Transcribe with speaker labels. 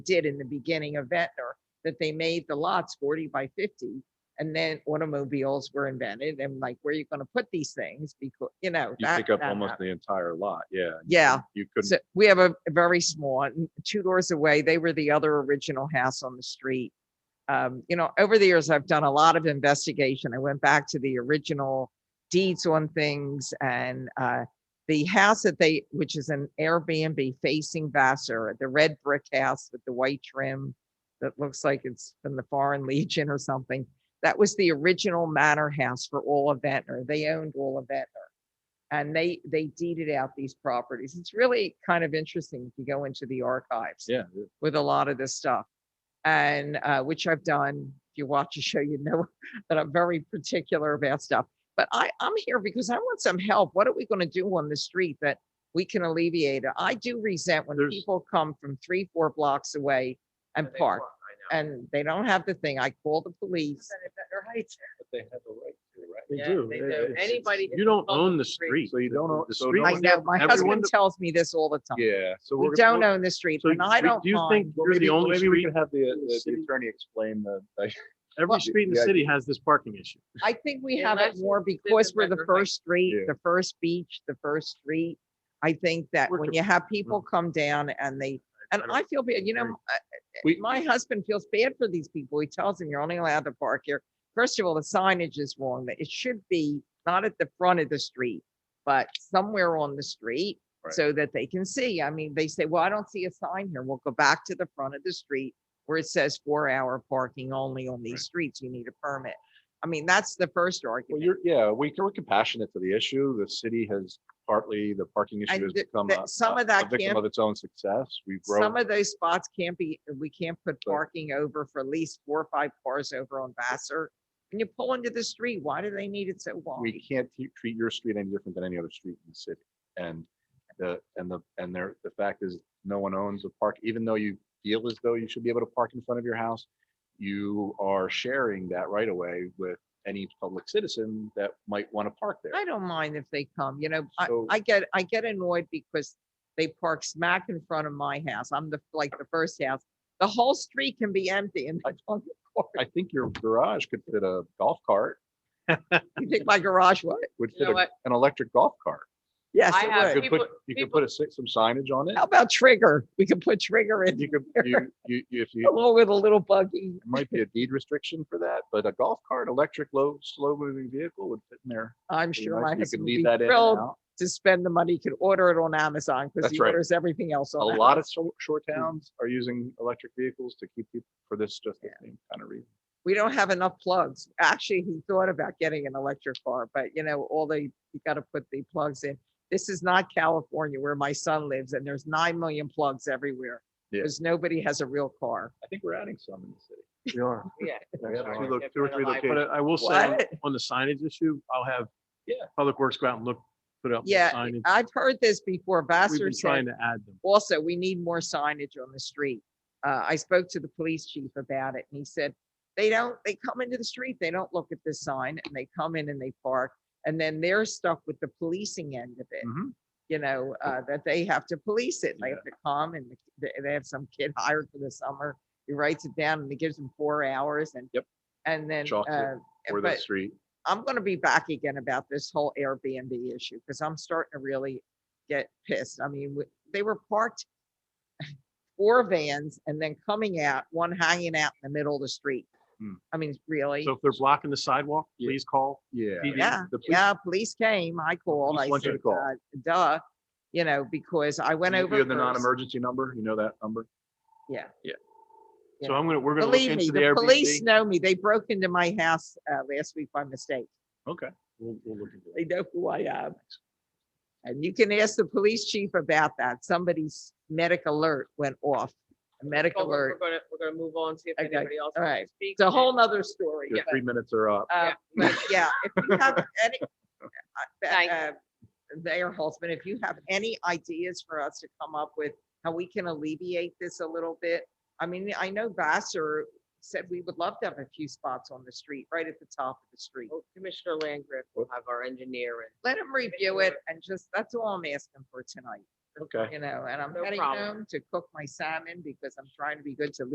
Speaker 1: did in the beginning of Ventnor, that they made the lots 40 by 50. And then automobiles were invented and like, where are you going to put these things? Because, you know.
Speaker 2: You
Speaker 1: that-
Speaker 2: pick up
Speaker 1: that
Speaker 2: almost
Speaker 1: happened.
Speaker 2: the entire lot, yeah. and
Speaker 1: Yeah.
Speaker 2: You couldn't,
Speaker 1: So we have a a very small, n- two doors away. They were the other original house on the street. Um, you know, over the years, I've done a lot of investigation. I went back to the original deeds on things and, uh, the house that they, which is an Airbnb facing Vassar, the red brick house with the white trim that looks like it's from the Foreign Legion or something. That was the original manor house for all of Ventnor. They owned all of Ventnor and they they deeded out these properties. It's really kind of interesting if you go into the archives
Speaker 2: yeah.
Speaker 1: with a lot of this stuff, and uh, which I've done. If you watch the show, you know that I'm very particular about stuff. But I I'm here because I want some help. What are we going to do on the street that we can alleviate it? I do resent when
Speaker 2: There's-
Speaker 1: people come from three four blocks away and park, and they don't have the thing. I call the police.
Speaker 2: They have the right to, right?
Speaker 3: They
Speaker 4: Yeah,
Speaker 3: do.
Speaker 4: they
Speaker 3: It-
Speaker 4: do.
Speaker 3: it's- it's-
Speaker 4: Anybody
Speaker 3: You don't
Speaker 4: on
Speaker 3: own
Speaker 4: the
Speaker 3: the
Speaker 4: street.
Speaker 3: street.
Speaker 2: So you don't own-
Speaker 3: The
Speaker 2: so
Speaker 3: street-
Speaker 2: no
Speaker 1: I
Speaker 2: one-
Speaker 1: know my
Speaker 3: everyone
Speaker 1: husband
Speaker 3: that-
Speaker 1: tells me this all the time.
Speaker 2: Yeah, so
Speaker 1: We
Speaker 2: we're. gonna-
Speaker 1: don't own the street,
Speaker 3: So
Speaker 1: and I
Speaker 3: we-
Speaker 1: don't
Speaker 3: Do you
Speaker 1: mind.
Speaker 3: think
Speaker 2: Well,
Speaker 3: you're
Speaker 2: maybe,
Speaker 3: the only
Speaker 2: maybe we
Speaker 3: street,
Speaker 2: can have the, uh,
Speaker 3: the
Speaker 2: the
Speaker 3: city-
Speaker 2: attorney explain the, like,
Speaker 3: every street in the
Speaker 2: Yeah.
Speaker 3: city has this parking issue?
Speaker 1: I think we have it
Speaker 4: Unless you
Speaker 1: more
Speaker 4: live in
Speaker 1: because we're the
Speaker 4: Becker Heights.
Speaker 1: first street,
Speaker 2: Yeah.
Speaker 1: the first beach, the first street. I think that
Speaker 3: We're
Speaker 1: when
Speaker 3: com-
Speaker 1: you have people come down and they, and
Speaker 3: don't-
Speaker 1: I feel bad, you know,
Speaker 3: agree.
Speaker 1: m- I-
Speaker 2: we,
Speaker 1: my husband feels bad for these people. He tells them you're only allowed to park here. First of all, the signage is wrong. That It should be not at the front of the street, but somewhere on the street
Speaker 2: Right.
Speaker 1: so that they can see. I mean, they say, well, I don't see a sign here. We'll go back to the front of the street where it says four hour parking only on
Speaker 2: Right.
Speaker 1: these streets. You need a permit. I mean, that's the first argument.
Speaker 2: well, you're, yeah, we, we're compassionate to the issue. The city has partly, the parking
Speaker 1: And
Speaker 2: issue has
Speaker 1: th-
Speaker 2: become
Speaker 1: that-
Speaker 2: a-
Speaker 1: some
Speaker 2: a-
Speaker 1: of that
Speaker 2: a Victim
Speaker 1: can't-
Speaker 2: of its own success. We've grown.
Speaker 1: Some of those spots can't be, we can't put
Speaker 2: Right.
Speaker 1: parking over for at least four or five cars over on Vassar. And you pull into the street, why do they need it so
Speaker 2: we
Speaker 1: wide?
Speaker 2: can't te- treat your street any different than any other street in the city. And the, and the, and there, the fact is, no one owns a park, even though you feel as though you should be able to park in front of your house. You are sharing that right away with any public citizen that might want to park there.
Speaker 1: I don't mind if they come, you know, I,
Speaker 2: So-
Speaker 1: I get, I get annoyed because they park smack in front of my house. I'm the, like, the first house. The whole street can be empty and they don't-
Speaker 2: I think your garage could fit a golf cart,
Speaker 1: you think my garage, what?
Speaker 2: would
Speaker 4: You
Speaker 2: fit
Speaker 4: know
Speaker 2: a-
Speaker 4: what?
Speaker 2: an electric golf cart.
Speaker 1: Yes,
Speaker 4: I have
Speaker 1: it would.
Speaker 2: You could put,
Speaker 4: people-
Speaker 2: you could
Speaker 4: people-
Speaker 2: put a, si- some signage on it.
Speaker 1: How about trigger? We can put trigger in
Speaker 2: You could, you, you, you- if you,
Speaker 1: along with a little buggy.
Speaker 2: There might be a deed restriction for that, but a golf cart, electric, low, slow-moving vehicle would fit in there.
Speaker 1: I'm
Speaker 2: pretty
Speaker 1: sure
Speaker 2: nice.
Speaker 1: my
Speaker 2: You could
Speaker 1: husband would be
Speaker 2: leave that in and
Speaker 1: thrilled
Speaker 2: out.
Speaker 1: to spend the money, could order it on Amazon because
Speaker 2: That's
Speaker 1: he
Speaker 2: right.
Speaker 1: orders everything else
Speaker 2: A
Speaker 1: on.
Speaker 2: lot of shor- shore
Speaker 1: Hmm.
Speaker 2: towns are using electric vehicles to keep people for this, just the same kind of reason.
Speaker 1: we don't have enough plugs. Actually, he thought about getting an electric car, but you know, all the, you gotta put the plugs in. This is not California where my son lives and there's nine million plugs everywhere.
Speaker 2: Yeah.
Speaker 1: Because nobody has a real car.
Speaker 2: I think we're adding some in the city.
Speaker 3: You are.
Speaker 4: Yeah.
Speaker 2: We have
Speaker 3: Two
Speaker 2: two
Speaker 3: lo-
Speaker 2: loc-
Speaker 4: If
Speaker 2: two or
Speaker 4: we're
Speaker 2: three
Speaker 4: alive.
Speaker 3: But uh,
Speaker 2: locations.
Speaker 3: I- I will say, on-
Speaker 1: What?
Speaker 3: on the signage issue, I'll have.
Speaker 2: Yeah.
Speaker 3: Public Works go out and look, put up more
Speaker 1: Yeah,
Speaker 3: signage.
Speaker 1: I've heard this before.
Speaker 3: We've
Speaker 1: Vassar
Speaker 3: been
Speaker 1: said,
Speaker 3: trying to add them.
Speaker 1: also, we need more signage on the street. Uh, I spoke to the police chief about it and he said, they don't, they come into the street, they don't look at the sign and they come in and they park. And then they're stuck with the policing end of it.
Speaker 2: Mhm.
Speaker 1: you know, uh, that they have to police it. They
Speaker 2: Yeah.
Speaker 1: have to come and the ki- they, they have some kid hired for the summer. He writes it down and he gives them four hours and.
Speaker 2: Yep.
Speaker 1: And then,
Speaker 2: Chalks it
Speaker 1: uh,
Speaker 2: Or the
Speaker 1: but
Speaker 2: street.
Speaker 1: I'm gonna be back again about this whole Airbnb issue, because I'm starting to really get pissed. I mean, w- they were parked four vans and then coming out, one hanging out in the middle of the street.
Speaker 2: Hmm.
Speaker 1: I mean, really?
Speaker 3: So if they're blocking the sidewalk,
Speaker 2: Yeah.
Speaker 3: please call.
Speaker 2: Yeah.
Speaker 3: PD.
Speaker 1: Yeah,
Speaker 2: The police-
Speaker 1: yeah, police came, I called,
Speaker 2: police
Speaker 1: I
Speaker 2: want you
Speaker 1: said,
Speaker 2: to call.
Speaker 1: uh, duh, you know, because I went
Speaker 2: You
Speaker 1: over.
Speaker 2: have the
Speaker 1: first.
Speaker 2: non-emergency number, you know that number?
Speaker 3: So I'm gonna, we're gonna look
Speaker 1: Believe me,
Speaker 3: into the
Speaker 1: the police
Speaker 3: Airbnb.
Speaker 1: know me. They broke into my house uh, last week by mistake.
Speaker 2: Okay. We'll, we'll look into
Speaker 1: They know who I am. And you can ask the police chief about that. Somebody's medic alert went off. A medic
Speaker 4: Well, we're-
Speaker 1: alert.
Speaker 4: We're gonna, we're gonna move on, see if
Speaker 1: Okay,
Speaker 4: anybody else.
Speaker 1: all
Speaker 4: wants to
Speaker 1: right.
Speaker 4: speak.
Speaker 1: It's a whole nother story.
Speaker 2: Your
Speaker 1: but,
Speaker 2: three minutes are up.
Speaker 1: uh, but Yeah, if you have any, uh,
Speaker 4: Thank
Speaker 1: uh, Mayor Holtzman, if you have any ideas for us to come up with, how we can alleviate this a little bit? I mean, I know Vassar said we would love to have a few spots on the street, right at the top of the street.
Speaker 4: Well, Commissioner Landgraf will have our engineer and
Speaker 1: let him review
Speaker 4: sure.
Speaker 1: it and just, that's all I'm asking for tonight.
Speaker 2: Okay.
Speaker 1: you know, and I'm
Speaker 4: No
Speaker 1: heading
Speaker 4: problem.
Speaker 1: home to cook my salmon because I'm trying to be good to